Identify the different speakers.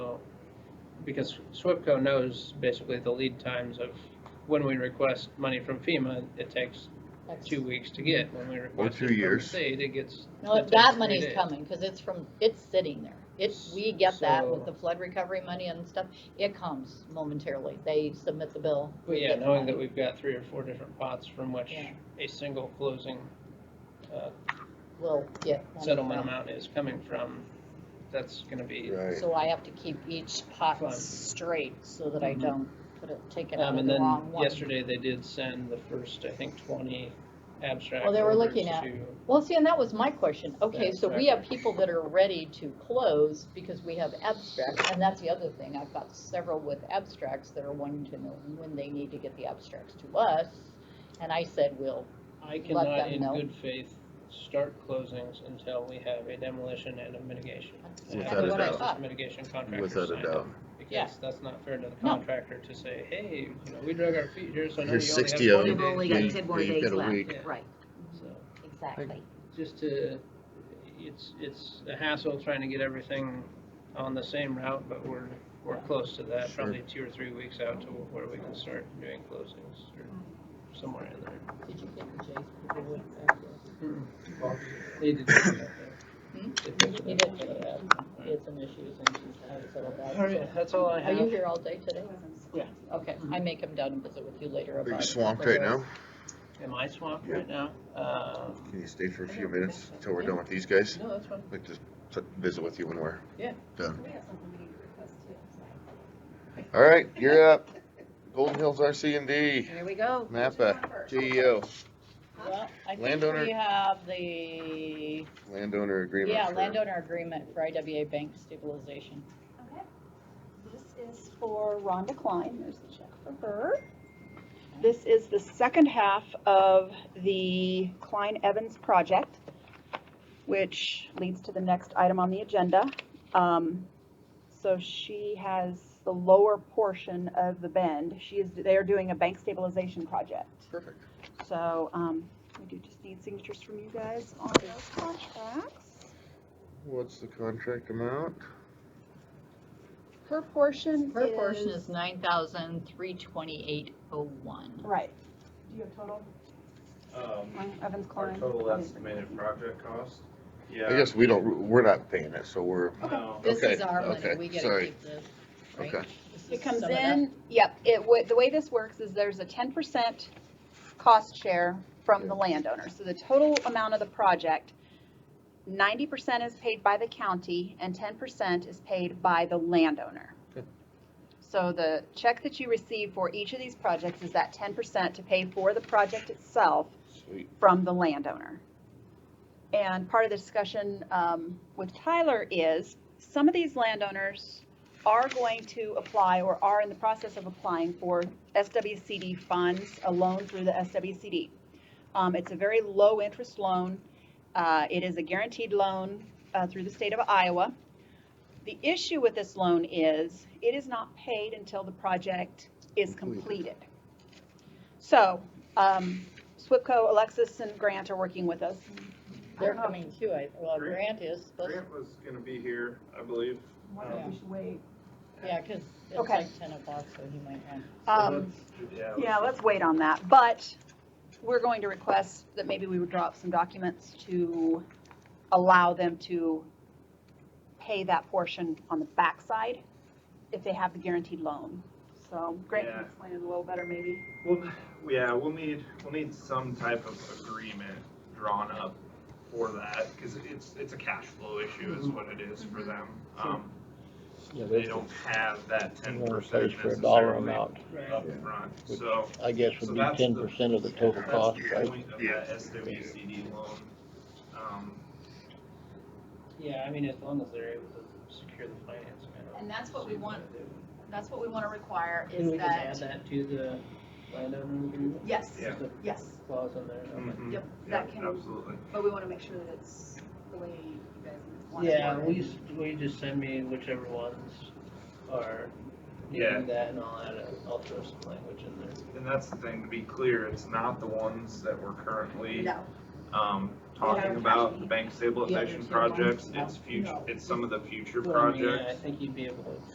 Speaker 1: because SWIPCO knows basically the lead times of when we request money from FEMA, it takes
Speaker 2: That's-
Speaker 1: two weeks to get. When we request
Speaker 3: two
Speaker 1: it from the
Speaker 3: years.
Speaker 1: state, it gets. it
Speaker 2: No,
Speaker 1: takes
Speaker 2: that
Speaker 1: three
Speaker 2: money's
Speaker 1: days.
Speaker 2: coming, cause it's from, it's sitting there. It's, we get that
Speaker 1: So-
Speaker 2: with the flood recovery money and stuff. It comes momentarily. They submit the bill.
Speaker 1: Well,
Speaker 2: we
Speaker 1: yeah,
Speaker 2: get the
Speaker 1: knowing that
Speaker 2: money.
Speaker 1: we've got three or four different pots from which
Speaker 2: Yeah.
Speaker 1: a single closing uh,
Speaker 2: We'll get. money
Speaker 1: settlement
Speaker 2: from.
Speaker 1: amount is coming from, that's gonna be.
Speaker 3: Right.
Speaker 2: So I have to keep each pot
Speaker 1: Fine.
Speaker 2: straight so that I
Speaker 1: Mhm.
Speaker 2: don't put it, take it out
Speaker 1: Um,
Speaker 2: of
Speaker 1: and
Speaker 2: the
Speaker 1: then
Speaker 2: wrong one.
Speaker 1: yesterday they did send the first, I think, twenty abstract
Speaker 2: Well, they were
Speaker 1: orders
Speaker 2: looking at-
Speaker 1: to-
Speaker 2: Well, see, and that was my question. Okay,
Speaker 1: Yeah,
Speaker 2: so we
Speaker 1: exactly.
Speaker 2: have people that are ready to close because we have abstracts, and that's the other thing. I've got several with abstracts that are wanting to know when they need to get the abstracts to us. And I said, we'll
Speaker 1: I
Speaker 2: let
Speaker 1: cannot
Speaker 2: them
Speaker 1: in
Speaker 2: know.
Speaker 1: good faith start closings until we have a demolition and a mitigation.
Speaker 2: that's
Speaker 1: And
Speaker 3: Without
Speaker 1: have
Speaker 2: exactly
Speaker 3: a
Speaker 1: the
Speaker 2: what I
Speaker 3: doubt.
Speaker 1: process
Speaker 2: thought.
Speaker 1: Mitigation contractor
Speaker 3: Without a
Speaker 1: signed up,
Speaker 3: doubt.
Speaker 2: Yeah.
Speaker 1: Because that's not fair to the
Speaker 2: No.
Speaker 1: contractor to say, hey, you know, we drug our feet here, so now you only have
Speaker 3: Here's 60
Speaker 1: 40 days
Speaker 3: of them.
Speaker 4: You've only got
Speaker 3: Yeah,
Speaker 4: ten more
Speaker 3: you've
Speaker 4: days
Speaker 3: got a
Speaker 4: left.
Speaker 3: week.
Speaker 1: Yeah.
Speaker 4: Right,
Speaker 1: So,
Speaker 4: exactly.
Speaker 1: just to, it's, it's a hassle trying to get everything on the same route, but we're, we're close to that,
Speaker 3: Sure.
Speaker 1: probably two or three weeks out to where we can start doing closings or somewhere in there.
Speaker 2: Did you get the J's before we went back there?
Speaker 1: They did that,
Speaker 2: Hmm?
Speaker 1: though. They
Speaker 2: You
Speaker 1: did
Speaker 2: did
Speaker 1: that.
Speaker 2: get it out.
Speaker 1: Alright.
Speaker 2: It's an issue, and she's had it settled out.
Speaker 1: All right, that's all I
Speaker 2: Are you
Speaker 1: have.
Speaker 2: here all day today?
Speaker 1: Yeah.
Speaker 2: Okay, I may come down and visit with you later
Speaker 3: Are
Speaker 2: about.
Speaker 3: you
Speaker 2: it,
Speaker 3: swamped
Speaker 2: whether
Speaker 3: right
Speaker 2: it's-
Speaker 3: now?
Speaker 1: Am I swamped
Speaker 3: Yeah.
Speaker 1: right now? Um,
Speaker 3: Can you stay for a
Speaker 1: I
Speaker 3: few
Speaker 1: don't
Speaker 3: minutes
Speaker 1: think so.
Speaker 3: until we're
Speaker 1: Yeah.
Speaker 3: done with these guys?
Speaker 1: no, that's fine.
Speaker 3: Like to t- visit with you when we're
Speaker 1: Yeah.
Speaker 3: done.
Speaker 5: We have something we need to request too.
Speaker 3: All right, you're up. Golden Hills RC and D,
Speaker 4: Here we go.
Speaker 3: MAPPA, E GEO,
Speaker 2: Well, I think
Speaker 3: Landowner-
Speaker 2: we have the,
Speaker 3: landowner agreement.
Speaker 2: yeah,
Speaker 3: for-
Speaker 2: landowner agreement for IWA bank stabilization.
Speaker 5: Okay. This is for Rhonda Klein, there's the check for her. This is the second half of the Klein Evans project, which leads to the next item on the agenda. Um, So she has the lower portion of the bend, she is, they are doing a bank stabilization project.
Speaker 3: Perfect.
Speaker 5: So, um, we do just need signatures from you guys on those contracts.
Speaker 3: What's the contract amount?
Speaker 5: Her portion
Speaker 2: Her portion is nine thousand three twenty-eight oh one.
Speaker 5: Right. Do you have total?
Speaker 6: Um,
Speaker 5: Mine- Evans
Speaker 6: our
Speaker 5: Klein.
Speaker 6: total estimated project cost? Yeah. um,
Speaker 3: I guess we don't, we're not paying it, so we're,
Speaker 6: No,
Speaker 2: This is
Speaker 3: Okay,
Speaker 2: our money,
Speaker 3: okay,
Speaker 2: we get to
Speaker 3: sorry.
Speaker 2: keep this, right?
Speaker 3: Okay.
Speaker 2: This is
Speaker 5: It comes
Speaker 2: some of that.
Speaker 5: in, yep, it, wa- the way this works is there's a ten percent cost share from the landowner. So the total amount of the project, ninety percent is paid by the county and ten percent is paid by the landowner.
Speaker 3: Good.
Speaker 5: So the check that you receive for each of these projects is that ten percent to pay for the project itself
Speaker 3: sweet,
Speaker 5: from the landowner. And part of the discussion um, with Tyler is, some of these landowners are going to apply or are in the process of applying for SWCD funds, a loan through the SWCD. Um, It's a very low-interest loan. Uh, It is a guaranteed loan uh, through the state of Iowa. The issue with this loan is, it is not paid until the project is
Speaker 3: Completed.
Speaker 5: completed. So, um, SWPCO, Alexis, and Grant are working with us.
Speaker 2: They're coming too, I, well,
Speaker 6: Grant-
Speaker 2: Grant is, supposed-
Speaker 6: Grant was gonna be here, I believe.
Speaker 2: if we
Speaker 6: Um,
Speaker 2: yeah, cause it's
Speaker 5: Okay.
Speaker 2: like ten o'clock, so he might not.
Speaker 5: Um,
Speaker 6: Yeah.
Speaker 5: Yeah, let's wait on that, but we're going to request that maybe we would draw up some documents to allow them to pay that portion on the backside if they have the guaranteed loan. So Grant
Speaker 6: Yeah.
Speaker 5: can explain it a little better maybe.
Speaker 6: Well, yeah, we'll need, we'll need some type of agreement drawn up for that, cause it's, it's a cash flow issue is what it is for them. Um,
Speaker 7: Yeah,
Speaker 6: they
Speaker 7: they
Speaker 6: don't have that ten
Speaker 7: want to
Speaker 6: percent
Speaker 7: pay for a dollar
Speaker 6: necessarily
Speaker 7: amount,
Speaker 1: Right.
Speaker 6: upfront, so.
Speaker 7: I guess
Speaker 6: So
Speaker 7: would be
Speaker 6: that's the-
Speaker 7: ten percent of the total
Speaker 6: That's
Speaker 7: cost,
Speaker 6: the
Speaker 7: right?
Speaker 6: point of
Speaker 3: Yeah.
Speaker 6: that SWCD loan. Um,
Speaker 1: Yeah, I mean, as long as they're able to secure the financing. I don't
Speaker 2: And that's what we
Speaker 1: see why
Speaker 2: want.
Speaker 1: they would.
Speaker 2: That's what we wanna require
Speaker 1: Can we just add that to the landowner agreement?
Speaker 4: Yes,
Speaker 6: Yeah.
Speaker 1: Just a
Speaker 4: yes,
Speaker 1: Clause on there. okay.
Speaker 6: mhm.
Speaker 4: Yep,
Speaker 6: Yeah,
Speaker 4: that can-
Speaker 6: Absolutely.
Speaker 4: but we wanna make sure that it's the way you guys want it.
Speaker 1: Yeah, will you, s- will you just send me whichever ones are
Speaker 6: Yeah.
Speaker 1: needing that and I'll add, a- I'll throw some language in there.
Speaker 6: And that's the thing, to be clear, it's not the ones that we're currently,
Speaker 4: No,
Speaker 6: um,
Speaker 4: Yeah.
Speaker 6: talking about, the bank
Speaker 4: Yeah,
Speaker 6: stabilization
Speaker 4: there's no
Speaker 6: projects,
Speaker 4: ones.
Speaker 6: it's future,
Speaker 4: No.
Speaker 6: it's some of the future
Speaker 1: Well, I mean, I
Speaker 6: projects.
Speaker 1: think you'd be able to